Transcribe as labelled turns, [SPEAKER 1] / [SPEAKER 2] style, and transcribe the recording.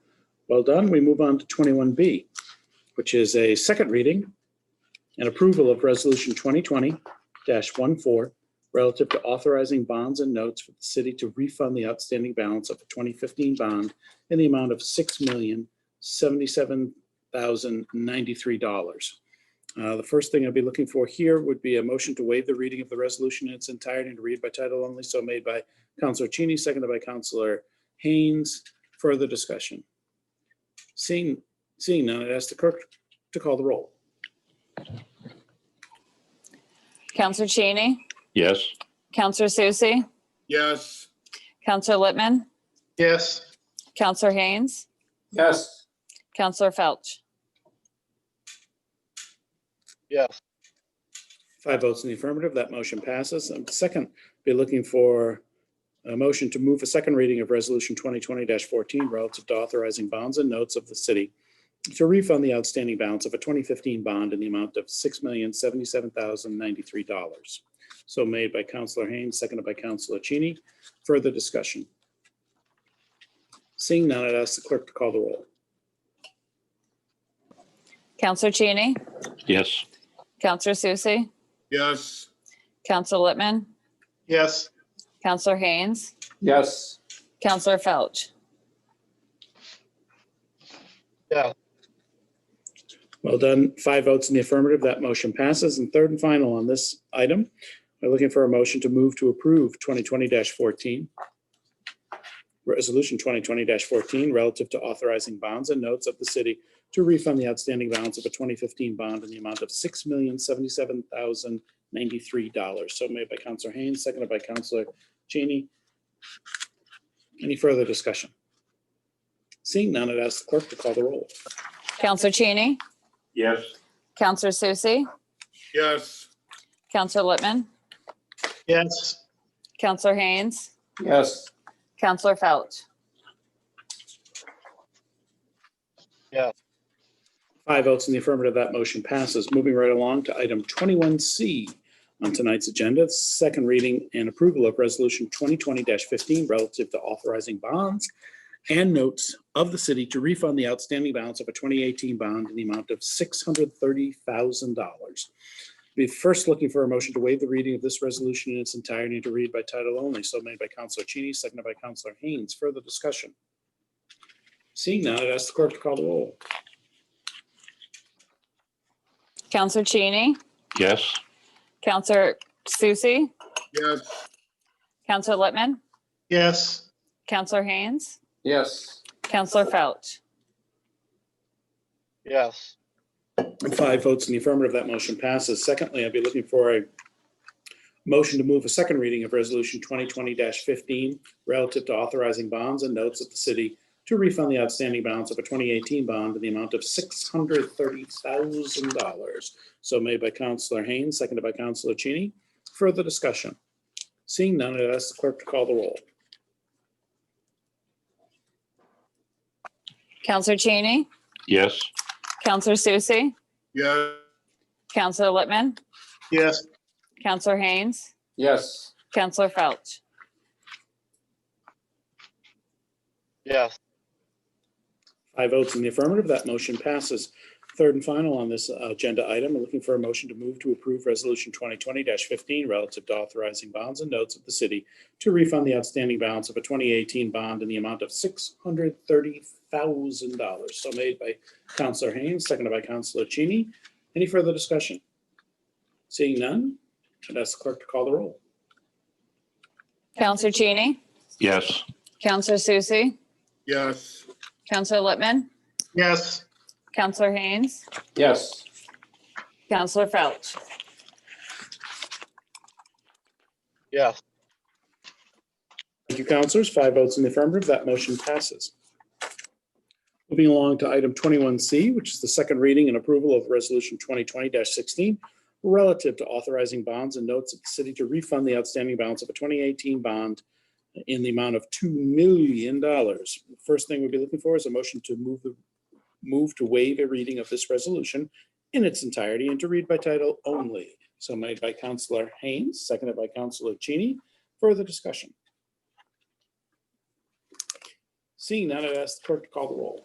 [SPEAKER 1] Well done. We move on to 21B, which is a second reading and approval of Resolution 2020-14 relative to authorizing bonds and notes for the city to refund the outstanding balance of the 2015 bond in the amount of $6,077,093. Uh, The first thing I'd be looking for here would be a motion to waive the reading of the resolution in its entirety and to read by title only, so made by Counselor Cheney, seconded by Counselor Haynes. Further discussion? Seeing, seeing none, I'd ask the clerk to call the roll.
[SPEAKER 2] Counselor Cheney,
[SPEAKER 3] Yes.
[SPEAKER 2] Counselor Susie,
[SPEAKER 4] Yes.
[SPEAKER 2] Counselor Littman,
[SPEAKER 4] Yes.
[SPEAKER 2] Counselor Haynes,
[SPEAKER 4] Yes.
[SPEAKER 2] Counselor Felch.
[SPEAKER 4] Yes.
[SPEAKER 1] Five votes in the affirmative, that motion passes. And second, be looking for a motion to move a second reading of Resolution 2020-14 relative to authorizing bonds and notes of the city to refund the outstanding balance of a 2015 bond in the amount of $6,077,093. So made by Counselor Haynes, seconded by Counselor Cheney. Further discussion? Seeing none, I'd ask the clerk to call the roll.
[SPEAKER 2] Counselor Cheney,
[SPEAKER 3] Yes.
[SPEAKER 2] Counselor Susie,
[SPEAKER 4] Yes.
[SPEAKER 2] Counselor Littman,
[SPEAKER 4] Yes.
[SPEAKER 2] Counselor Haynes,
[SPEAKER 4] Yes.
[SPEAKER 2] Counselor Felch.
[SPEAKER 1] Well done. Five votes in the affirmative, that motion passes. And third and final on this item, we're looking for a motion to move to approve 2020-14. Resolution 2020-14 relative to authorizing bonds and notes of the city to refund the outstanding balance of a 2015 bond in the amount of $6,077,093. So made by Counselor Haynes, seconded by Counselor Cheney. Any further discussion? Seeing none, I'd ask the clerk to call the roll.
[SPEAKER 2] Counselor Cheney,
[SPEAKER 3] Yes.
[SPEAKER 2] Counselor Susie,
[SPEAKER 4] Yes.
[SPEAKER 2] Counselor Littman,
[SPEAKER 4] Yes.
[SPEAKER 2] Counselor Haynes,
[SPEAKER 4] Yes.
[SPEAKER 2] Counselor Felch.
[SPEAKER 1] Five votes in the affirmative, that motion passes. Moving right along to item 21C on tonight's agenda, second reading and approval of Resolution 2020-15 relative to authorizing bonds and notes of the city to refund the outstanding balance of a 2018 bond in the amount of $630,000. Be first looking for a motion to waive the reading of this resolution in its entirety and to read by title only. So made by Counselor Cheney, seconded by Counselor Haynes. Further discussion? Seeing none, I'd ask the clerk to call the roll.
[SPEAKER 2] Counselor Cheney,
[SPEAKER 3] Yes.
[SPEAKER 2] Counselor Susie,
[SPEAKER 4] Yes.
[SPEAKER 2] Counselor Littman,
[SPEAKER 4] Yes.
[SPEAKER 2] Counselor Haynes,
[SPEAKER 4] Yes.
[SPEAKER 2] Counselor Felch.
[SPEAKER 4] Yes.
[SPEAKER 1] Five votes in the affirmative, that motion passes. Secondly, I'd be looking for a motion to move a second reading of Resolution 2020-15 relative to authorizing bonds and notes of the city to refund the outstanding balance of a 2018 bond in the amount of $630,000. So made by Counselor Haynes, seconded by Counselor Cheney. Further discussion? Seeing none, I'd ask the clerk to call the roll.
[SPEAKER 2] Counselor Cheney,
[SPEAKER 3] Yes.
[SPEAKER 2] Counselor Susie,
[SPEAKER 4] Yes.
[SPEAKER 2] Counselor Littman,
[SPEAKER 4] Yes.
[SPEAKER 2] Counselor Haynes,
[SPEAKER 4] Yes.
[SPEAKER 2] Counselor Felch.
[SPEAKER 4] Yes.
[SPEAKER 1] Five votes in the affirmative, that motion passes. Third and final on this uh, agenda item, we're looking for a motion to move to approve Resolution 2020-15 relative to authorizing bonds and notes of the city to refund the outstanding balance of a 2018 bond in the amount of $630,000. So made by Counselor Haynes, seconded by Counselor Cheney. Any further discussion? Seeing none, I'd ask the clerk to call the roll.
[SPEAKER 2] Counselor Cheney,
[SPEAKER 3] Yes.
[SPEAKER 2] Counselor Susie,
[SPEAKER 4] Yes.
[SPEAKER 2] Counselor Littman,
[SPEAKER 4] Yes.
[SPEAKER 2] Counselor Haynes,
[SPEAKER 4] Yes.
[SPEAKER 2] Counselor Felch.
[SPEAKER 4] Yes.
[SPEAKER 1] Thank you, counselors. Five votes in the affirmative, that motion passes. Moving along to item 21C, which is the second reading and approval of Resolution 2020-16 relative to authorizing bonds and notes of the city to refund the outstanding balance of a 2018 bond in the amount of $2 million. First thing we'd be looking for is a motion to move the, move to waive a reading of this resolution in its entirety and to read by title only. So made by Counselor Haynes, seconded by Counselor Cheney. Further discussion? Seeing none, I'd ask the clerk to call the roll.